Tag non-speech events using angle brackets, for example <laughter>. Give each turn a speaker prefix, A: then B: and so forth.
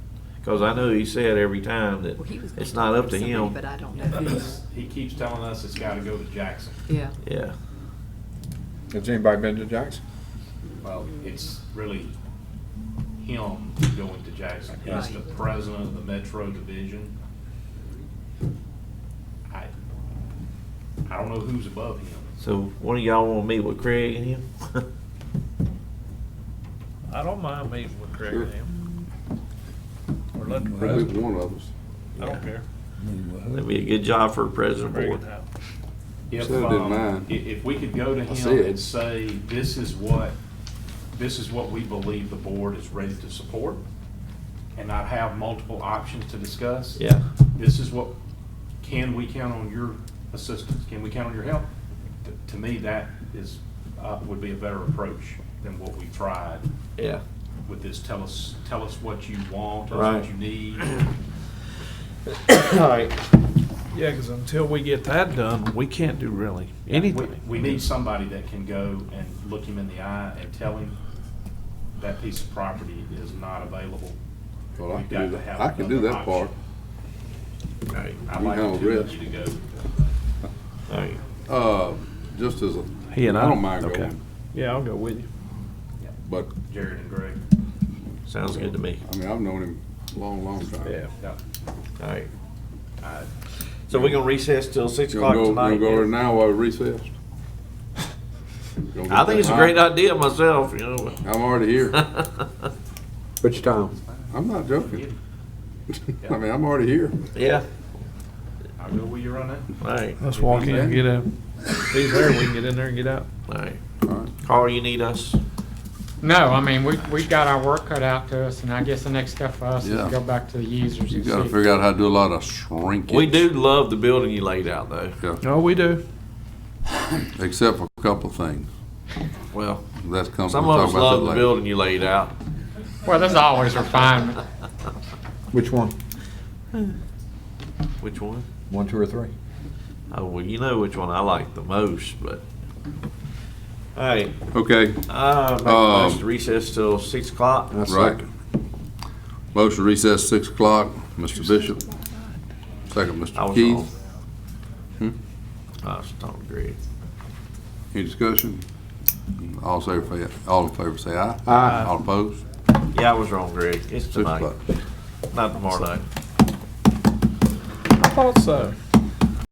A: Cause I know he said every time that
B: Well, he was gonna
A: it's not
B: talk
A: up to
B: somebody,
A: him.
B: But I don't know who.
A: <laughs>
C: It's- He keeps telling us it's gotta go to Jackson.
B: Yeah.
A: Yeah,
D: Has anybody been to Jackson?
C: Well, it's really him going to Jackson. He's
B: Right.
C: the president of the Metro Division. I, I don't know who's above him.
A: so one of y'all wanna meet with Craig and him? <laughs>
E: I don't mind meeting with Craig
F: Sure.
E: and him. Or let the
F: Probably
E: president,
F: one of us.
E: I don't care.
A: That'd be a good job for a president
E: Bring
A: board.
E: it out.
C: If,
F: So did
C: um,
F: mine.
C: i- If we could go to
F: I
C: him
F: said.
C: and say, this is what, this is what we believe the board is ready to support, and not have multiple options to discuss.
A: Yeah,
C: This is what, can we count on your assistance? Can we count on your help? T- To me, that is, uh, would be a better approach than what we've tried
A: yeah.
C: with this, tell us, tell us what you want, tell us
A: Right.
C: what you need.
A: Alright.
E: Yeah, because until we get that done, we can't do really anything.
C: We we need somebody that can go and look him in the eye and tell him that piece of property is not available.
F: Well, I
C: We've
F: can
C: got
F: do
C: to
F: that.
C: have
F: I can do
C: another
F: that part.
C: option. I'd
F: You
C: like
F: handle
C: the two of
F: risk.
C: you to go.
A: Alright,
F: Uh, just as a,
E: He and I?
F: don't mind
E: Okay.
F: going,
E: Yeah, I'll go with you.
F: but,
C: Jared and Greg.
A: sounds good to me.
F: I mean, I've known him a long, long time.
E: Yeah.
C: Yeah.
A: Alright,
C: I-
A: so we gonna recess till six
F: You
A: o'clock
F: gonna go, you
A: tonight?
F: gonna go over
A: then?
F: now while we recess? Gonna
A: <laughs> I
F: get
A: think it's a
F: that
A: great
F: high?
A: idea myself, you know.
F: I'm already
A: <laughs>
F: here.
D: Which town?
F: I'm not joking. I mean, I'm already here.
A: Yeah,
C: I'll go with you on that.
A: alright,
E: Let's walk in and get out. <laughs> If he's there, we can get in there and get out.
A: alright.
F: All right.
A: Carl, you need us?
G: No, I mean, we, we got our work cut out to us, and I guess the next step for us is
F: Yeah.
G: to go back to the users
F: You
G: and
F: gotta
G: see.
F: figure out how to do a lot of shrinkage.
A: We do love the building you laid out though.
E: No, Oh, we do.
F: Except for a couple of things.
A: Well,
F: That's coming, we'll
A: some of
F: talk
A: us
F: about
A: love
F: that
A: the
F: later.
A: building you laid out.
G: Well, there's always refinement.
D: Which one?
A: Which one?
D: One, two, or three?
A: Oh, well, you know which one I like the most, but. All right,
F: Okay,
A: uh, make a
F: Um,
A: motion to recess till six o'clock.
D: That's
F: right. Motion to recess six o'clock, Mr. Bishop. Second,
A: I
F: Mr.
A: was
F: Keith. Hmm?
A: wrong. I was talking to Greg.
F: Any discussion? All in favor, say- all in favor say aye.
D: Aye.
F: All opposed?
A: Yeah, I was wrong, Greg. It's
F: Six
A: tonight,
F: o'clock.
A: not tomorrow night.
E: I thought so.